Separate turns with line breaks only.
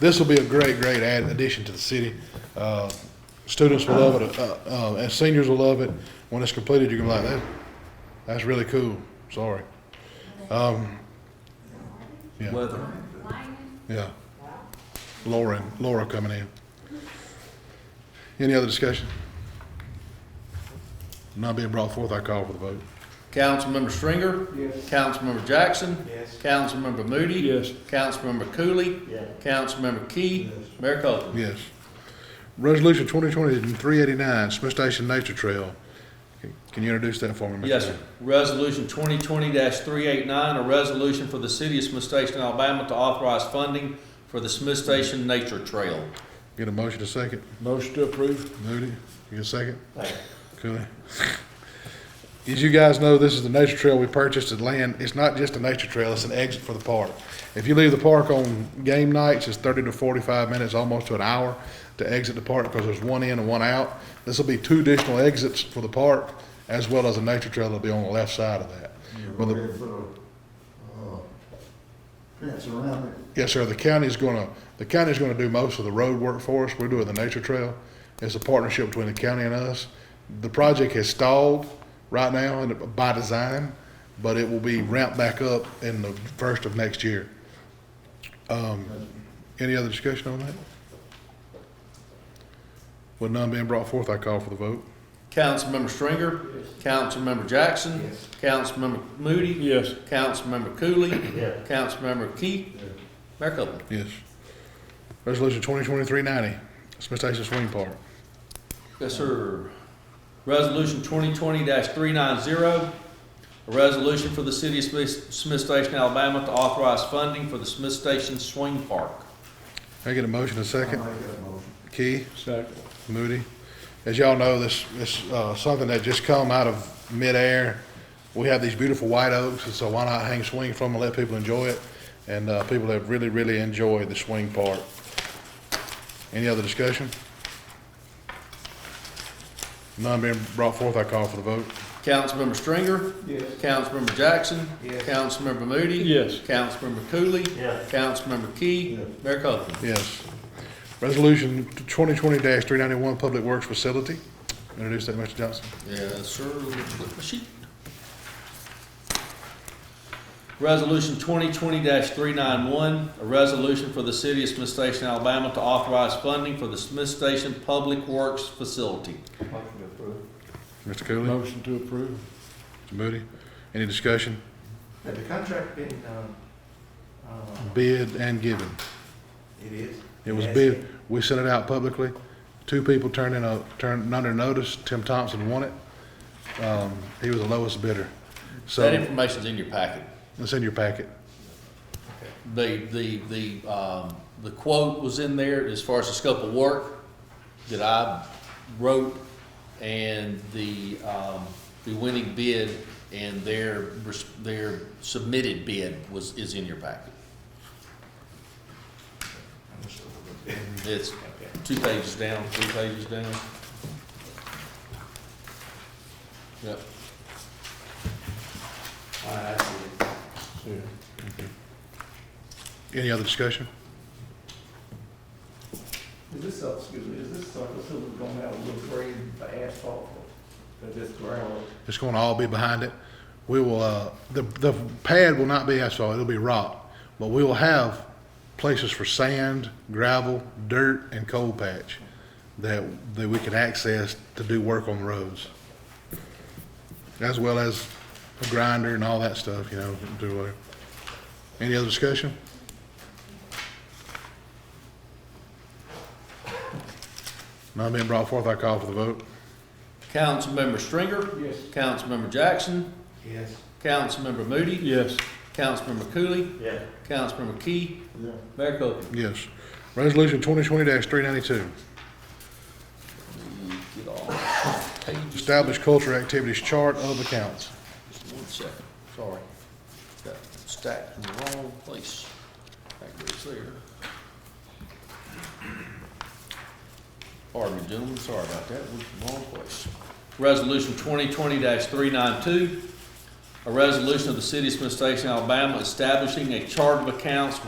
this will be a great, great add, addition to the city. Uh, Students will love it, uh, uh, and seniors will love it. When it's completed, you're gonna be like, that, that's really cool, sorry. Um, Yeah,
Weather.
yeah. Laura, and- Laura coming in. Any other discussion? Not being brought forth, I call for the vote.
Councilmember Stringer? Yes. Councilmember Jackson?
Yes.
Councilmember Moody?
Yes.
Councilmember Cooley?
Yes.
Councilmember Key?
Yes.
Mayor Copeland?
Yes. Resolution 2020-389, Smith Station Nature Trail. Can- Can you introduce that for me, Mr.
Yes,
Chair?
sir. Resolution twenty twenty three eight nine, a resolution for the city of Smith Station, Alabama to authorize funding for the Smith Station Nature Trail.
Get a motion to second.
Motion to approve?
Moody, you get a second? Cooley. As you guys know, this is the nature trail we purchased at land. It's not just a nature trail, it's an exit for the park. If you leave the park on game nights, it's thirty to forty-five minutes, almost to an hour to exit the park because there's one in and one out. This will be two additional exits for the park as well as a nature trail that'll be on the left side of that. Well, the-
Put a, uh, Fence around it.
Yes, sir. The county's gonna, the county's gonna do most of the road work for us. We're doing the nature trail. It's a partnership between the county and us. The project has stalled right now and by design, but it will be ramped back up in the first of next year. Um, any other discussion on that? With none being brought forth, I call for the vote.
Councilmember Stringer? Councilmember Jackson?
Yes.
Councilmember Moody?
Yes.
Councilmember Cooley?
Yes.
Councilmember Key? Mayor Copeland?
Yes. Resolution twenty twenty-three ninety, Smith Station Swing Park.
Yes, sir. Resolution twenty twenty three nine zero, a resolution for the city of Smith, Smith Station, Alabama to authorize funding for the Smith Station Swing Park.
Can I get a motion and a
I'll make
second?
that motion.
Key?
Second.
Moody. As y'all know, this, this, uh, something that just come out of midair. We have these beautiful white oaks, and so why not hang swing from them and let people enjoy it? And, uh, people have really, really enjoyed the swing part. Any other discussion? None being brought forth, I call for the vote.
Councilmember Stringer?
Yes.
Councilmember Jackson?
Yes.
Councilmember Moody?
Yes.
Councilmember Cooley?
Yes.
Councilmember Key?
Yes.
Mayor Copeland?
Yes. Resolution twenty twenty three ninety-one, Public Works Facility. Introduce that, Mr. Johnson.
Yes, sir. Flip my sheet. Resolution twenty twenty three nine one, a resolution for the city of Smith Station, Alabama to authorize funding for the Smith Station Public Works Facility.
Motion to approve.
Mr. Cooley, Mr.
Motion to approve?
Moody. Any discussion?
Had the contract been, um, uh,
Bid and given.
it is?
It was
Yes.
bid, we sent it out publicly. Two people turned in a, turned under notice. Tim Thompson won it. Um, he was the lowest bidder.
That
So
information's in your packet.
it's in your packet.
The, the, the, um, the quote was in there as far as the scope of work that I wrote and the, um, the winning bid and their, res- their submitted bid was, is in your packet. It's two pages down, three pages down. Yep.
All right, I see it.
Yeah.
Any other discussion?
Is this, uh, excuse me, is this something that we're gonna have a little grade for asphalt for, for this ground?
It's gonna all be behind it. We will, uh, the, the pad will not be asphalt, it'll be rock. But we will have places for sand, gravel, dirt, and coal patch that, that we can access to do work on the roads. As well as a grinder and all that stuff, you know, do uh Any other discussion? None being brought forth, I call for the vote.
Councilmember Stringer?
Yes.
Councilmember Jackson?
Yes.
Councilmember Moody?
Yes.
Councilmember Cooley,
Yeah.
Councilmember Key,
Yeah,
Mayor Copeland.
Yes. Resolution twenty twenty three ninety-two,
Get off pages.
establish culture activities chart of accounts.
Just one second, sorry. Got stacked in the wrong place. That goes there. Pardon me, gentlemen, sorry about that, was the wrong place. Resolution twenty twenty three nine two, a resolution of the city of Smith Station, Alabama, establishing a chart of accounts